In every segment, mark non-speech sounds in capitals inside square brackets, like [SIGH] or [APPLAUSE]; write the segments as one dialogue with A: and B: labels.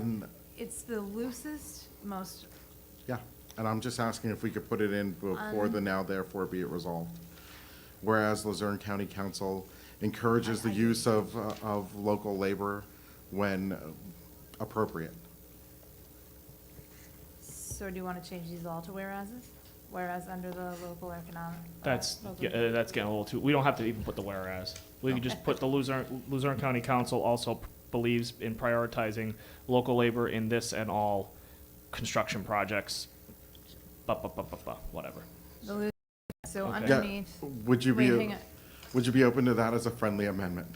A: And,
B: It's the loosest, most,
A: yeah, and I'm just asking if we could put it in before
B: Um,
A: the now therefore be it resolved. Whereas Luzerne County Council encourages the use of, uh, of local labor when appropriate.
B: so do you want to change these all to whereases? Whereas under the local economic. uh,
C: That's,
B: local-
C: yeah, uh, that's getting a little too, we don't have to even put the whereas. We can just put the Luzerne, Luzerne County Council also p- believes in prioritizing local labor in this and all construction projects. Ba, ba, ba, ba, ba, whatever.
B: the loo- So
C: Okay.
A: Yeah,
B: underneath,
A: Would you
B: Wait, hang
A: be,
B: on.
A: would you be open to that as a friendly amendment?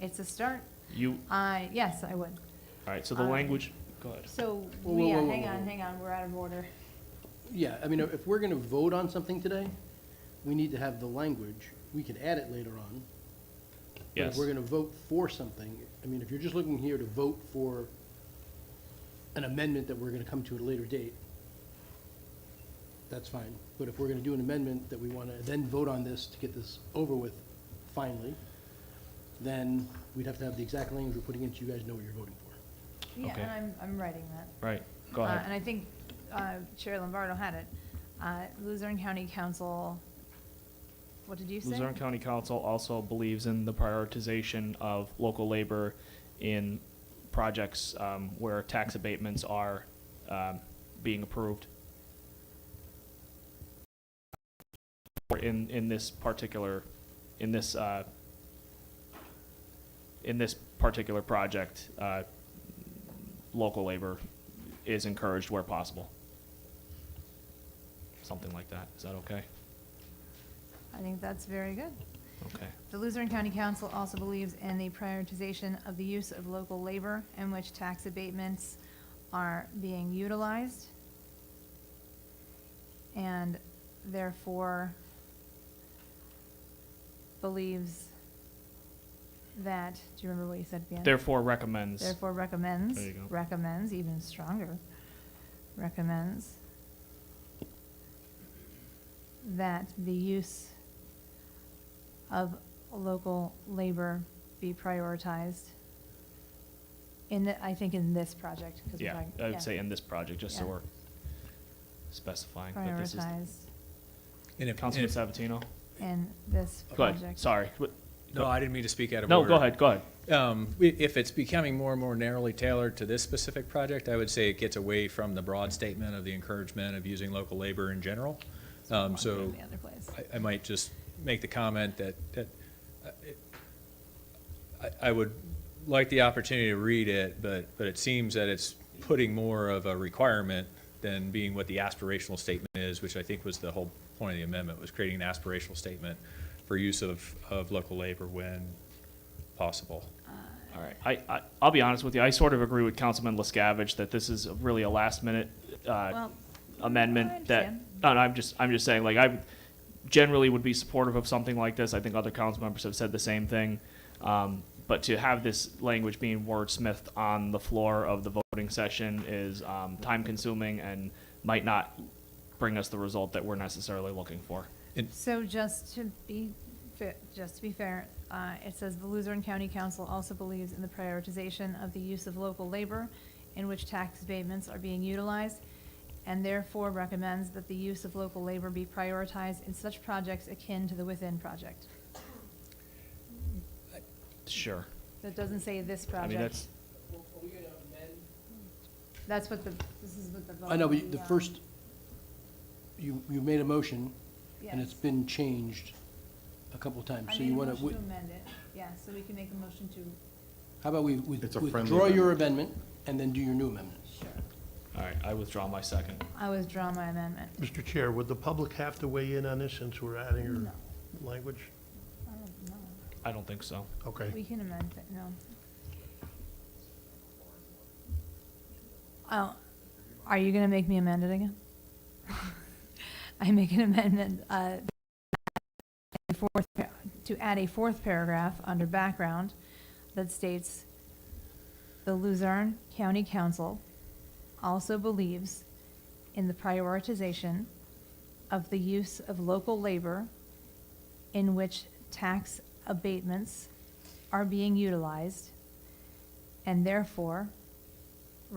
B: it's a start.
C: You,
B: I, yes, I would.
C: all right, so the
B: Um,
C: language, go ahead.
B: So,
D: Whoa, whoa,
B: we yeah,
D: whoa,
B: hang
D: whoa,
B: on,
D: whoa.
B: hang on, we're out of order.
D: Yeah, I mean, if we're gonna vote on something today, we need to have the language. We could add it later on. But
C: Yes.
D: If we're gonna vote for something, I mean, if you're just looking here to vote for an amendment that we're gonna come to at a later date, that's fine. But if we're gonna do an amendment that we wanna then vote on this to get this over with finally, then we'd have to have the exact language we're putting in so you guys know what you're voting for.
B: Yeah,
C: Okay.
B: and I'm, I'm writing that.
C: Right, go
B: Uh,
C: ahead.
B: And I think uh, Chair Lombardo had it. Uh, Luzerne County Council, what did you say?
C: Luzerne County Council also believes in the prioritization of local labor in projects um, where tax abatements are um, being approved. Or In, in this particular, in this, uh, in this particular project, uh, local labor is encouraged where possible. Something like that. Is that okay?
B: I think that's very good.
C: Okay.
B: The Luzerne County Council also believes in the prioritization of the use of local labor in which tax abatements are being utilized. And therefore believes that, do you remember what you said at the end?
C: Therefore recommends.
B: Therefore recommends,
C: There you go.
B: recommends, even stronger, recommends that the use of local labor be prioritized in the, I think in this project. 'cause we're
C: Yeah,
B: talking-
C: I
B: yeah,
C: would say in this project, just so
B: Yeah.
C: we're specifying that this is.
B: Prioritized
E: And if, and
C: Councilman
E: if-
C: Sabatino?
B: in this
C: Go
B: project.
C: ahead, sorry. What-
E: no, I didn't mean to speak out of
C: No,
E: order.
C: go ahead, go ahead.
E: Um, i- If it's becoming more and more narrowly tailored to this specific project, I would say it gets away from the broad statement of the encouragement of using local labor in general. Um, So
B: The other place.
E: I, I might just make the comment that, that uh, it- I, I would like the opportunity to read it, but, but it seems that it's putting more of a requirement than being what the aspirational statement is, which I think was the whole point of the amendment, was creating an aspirational statement for use of, of local labor when possible.
C: All right. I, I, I'll be honest with you, I sort of agree with Councilman Lescavage that this is really a last minute, uh,
B: Well, I
C: amendment that,
B: understand.
C: no, no, I'm just, I'm just saying, like, I generally would be supportive of something like this. I think other council members have said the same thing. Um, but to have this language being wordsmithed on the floor of the voting session is, um, time consuming and might not bring us the result that we're necessarily looking for.
B: So just to be, fa- just to be fair, uh, it says the Luzerne County Council also believes in the prioritization of the use of local labor in which tax abatements are being utilized, and therefore recommends that the use of local labor be prioritized in such projects akin to the Within Project.
C: Sure.
B: So it doesn't say this
C: I mean,
B: project.
C: that's,
B: That's what the, this is what the. vote
D: I know, but
B: on
D: you- the first, you, you made a motion, and it's
B: Yes.
D: been changed a couple of times,
B: I
D: so
B: made a
D: you wanna,
B: motion to
D: wi-
B: amend it, yeah, so we can make a motion to,
D: how about we with-
A: It's a friendly
D: withdraw your amendment and then do your new amendment?
B: sure.
C: all right, I withdraw my second.
B: I withdraw my amendment.
F: Mr. Chair, would the public have to weigh in on this since we're adding
B: No.
F: your language?
B: I don't know.
C: I don't think so.
F: Okay.
B: We can amend it, no. Oh, are you gonna make me amend it again? [LAUGHS] I make an amendment, uh, fourth, pa- to add a fourth paragraph under background that states, "The Luzerne County Council also believes in the prioritization of the use of local labor in which tax abatements are being utilized, and therefore